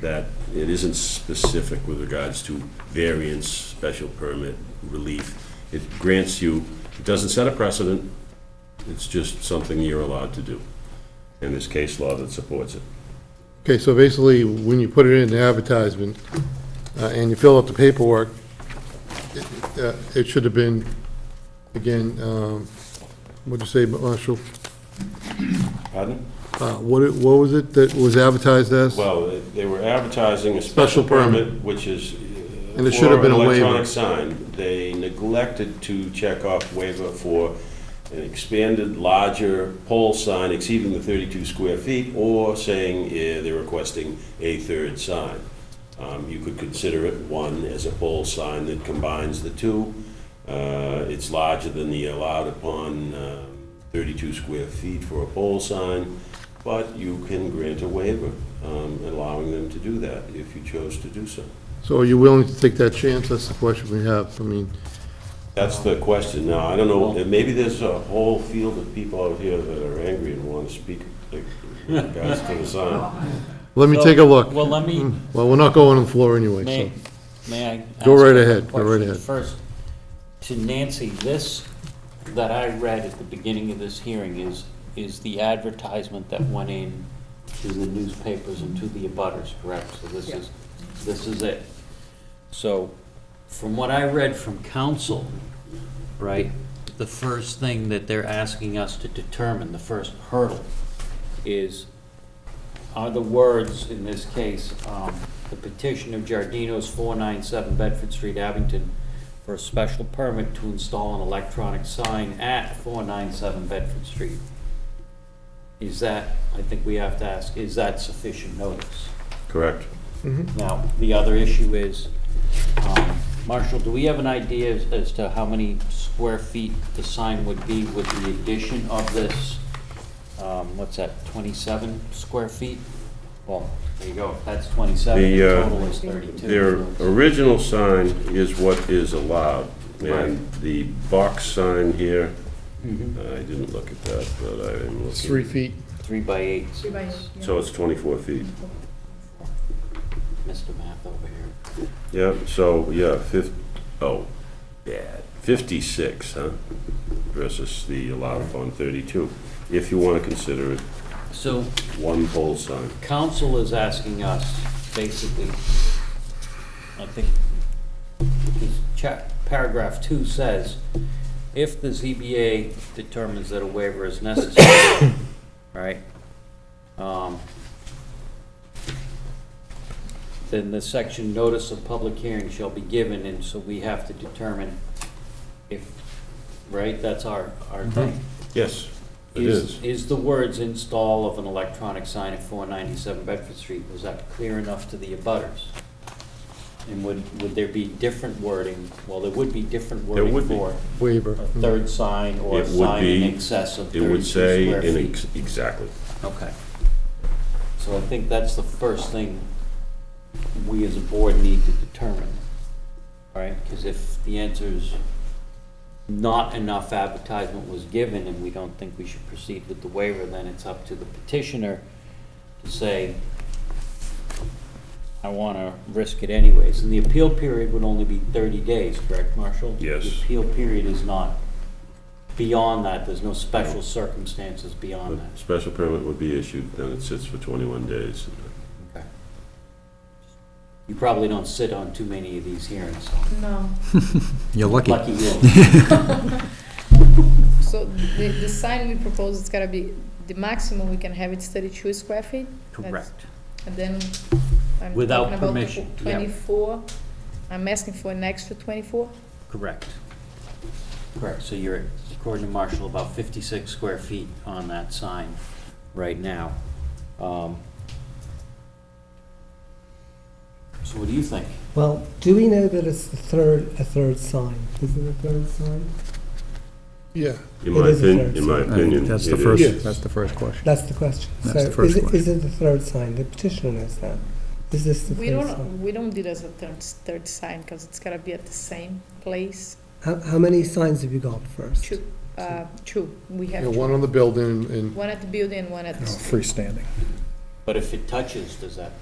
that it isn't specific with regards to variance, special permit, relief. It grants you, it doesn't set a precedent, it's just something you're allowed to do. And there's case law that supports it. Okay, so basically, when you put it in the advertisement, uh, and you fill out the paperwork, it- it, uh, it should have been, again, um, what'd you say, Marshall? Pardon? Uh, What, it- what was it that was advertised as? Well, they- they were advertising a special Special permit. permit, which is. uh, And it should have been a for an waiver. Electronic sign. They neglected to check off waiver for an expanded, larger pole sign exceeding the 32 square feet, or saying uh, they're requesting a third sign. Um, You could consider it, one, as a pole sign that combines the two. Uh, It's larger than the allowed upon um, 32 square feet for a pole sign, but you can grant a waiver um, allowing them to do that if you chose to do so. So are you willing to take that chance? That's the question we have. I mean, That's the question now. I don't know, and maybe there's a whole field of people out here that are angry and want to speak like, with regards to the sign. let me So- take a look. Hmm. Well, let me, Well, we're not going on the floor anyway, may, so. may I? Go ask right a ahead, go right question ahead. First, to Nancy, this that I read at the beginning of this hearing is, is the advertisement that went in to the newspapers and to the abutters, correct? So this is, this is it. So, from what I read from council, right, the first thing that they're asking us to determine, the first hurdle, is are the words, in this case, um, the petition of Giardino's 497 Bedford Street, Abington, for a special permit to install an electronic sign at 497 Bedford Street. Is that, I think we have to ask, is that sufficient notice? Correct? Now, the other issue is, um, Marshall, do we have an idea as- as to how many square feet the sign would be with the addition of this, um, what's that, 27 square feet? Well, there you go, that's 27, the The, uh, total is 32. Their original sign is what is allowed. Right. And the box sign here, I didn't look at that, but I am looking. It's three feet. Three by eights, Three by eight, yeah. So it's 24 feet. Mr. Math over here. Yeah, so, yeah, fif, oh, bad, 56, huh? Versus the allowed upon 32, if you want to consider it So one pole sign. council is asking us, basically, I think, this cha- paragraph two says, if the ZBA determines that a waiver is necessary, right? um, Then the section notice of public hearing shall be given, and so we have to determine if, right, that's our, our thing. Yes, it is. Is, is the words install of an electronic sign at 497 Bedford Street, was that clear enough to the abutters? And would, would there be different wording? Well, there would be different wording would be. for Waiver. a third sign or It a would sign in be- excess of It 32 would say, square in feet. ex- exactly. Okay. So I think that's the first thing we as a board need to determine, all right? Because if the answer is not enough advertisement was given and we don't think we should proceed with the waiver, then it's up to the petitioner to say, I want to risk it anyways. And the appeal period would only be 30 days, correct, Marshall? Yes. The appeal period is not beyond that, there's no special circumstances beyond that. A Special permit would be issued, then it sits for 21 days. You probably don't sit on too many of these hearings. No. You're lucky. Lucky you. So the, the sign we propose, it's gotta be, the maximum we can have it's thirty-two square feet? That's- And then I'm talking Without about permission, yeah. Twenty-four, I'm asking for an extra twenty-four? correct. Correct, so you're, according to Marshall, about 56 square feet on that sign right now. Um, So what do you think? Well, do we know that it's the third, a third sign? Is it a third sign? Yeah. In It my is a opinion, fair in my I think opinion. That's the it Yes. first, that's the first question. That's the question. That's so the first is, it, question. is it the third sign? The petitioner knows that. Is this the We third sign? don't, we don't do it as a third, third sign, cause it's gotta be at the same place, How, how many signs have you got first? two, uh, two, we have Yeah, two. one on the building and One at the building and one at the Freestanding. But if it touches, does that